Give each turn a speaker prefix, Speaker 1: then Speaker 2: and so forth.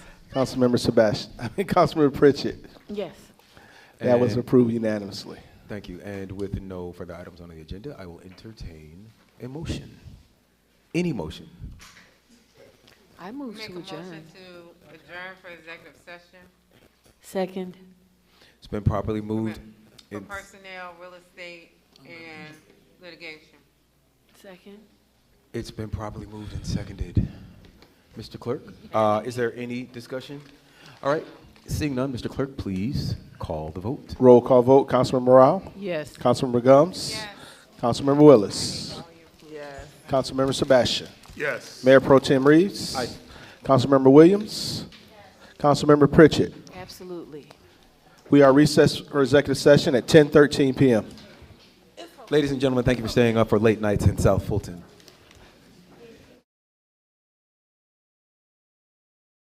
Speaker 1: Councilmember Sebastian, I mean, Councilmember Pritchett.
Speaker 2: Yes.
Speaker 1: That was
Speaker 3: And-
Speaker 1: approved unanimously.
Speaker 3: Thank you. And with no further items on the agenda, I will entertain a motion. Any motion.
Speaker 2: I move
Speaker 4: Make a
Speaker 2: to adjourn.
Speaker 4: motion to adjourn for executive session
Speaker 2: Second.
Speaker 3: It's been properly moved.
Speaker 4: for
Speaker 3: and-
Speaker 4: personnel, real estate, and litigation.
Speaker 2: Second.
Speaker 3: It's been properly moved and seconded. Mr. Clerk, uh, is there any discussion? All right, seeing none, Mr. Clerk, please call the vote.
Speaker 1: Roll call vote, Councilmember Morale,
Speaker 2: Yes.
Speaker 1: Councilmember Gums.
Speaker 4: Yes.
Speaker 1: Councilmember Willis.
Speaker 2: Yes.
Speaker 1: Councilmember Sebastian.
Speaker 5: Yes.
Speaker 1: Mayor Pro Tem Reeves. Councilmember Williams. Councilmember Pritchett.
Speaker 2: Absolutely.
Speaker 1: We are recessed for executive session at 10:13 PM.
Speaker 3: Ladies and gentlemen, thank you for staying up for late nights in South Fulton.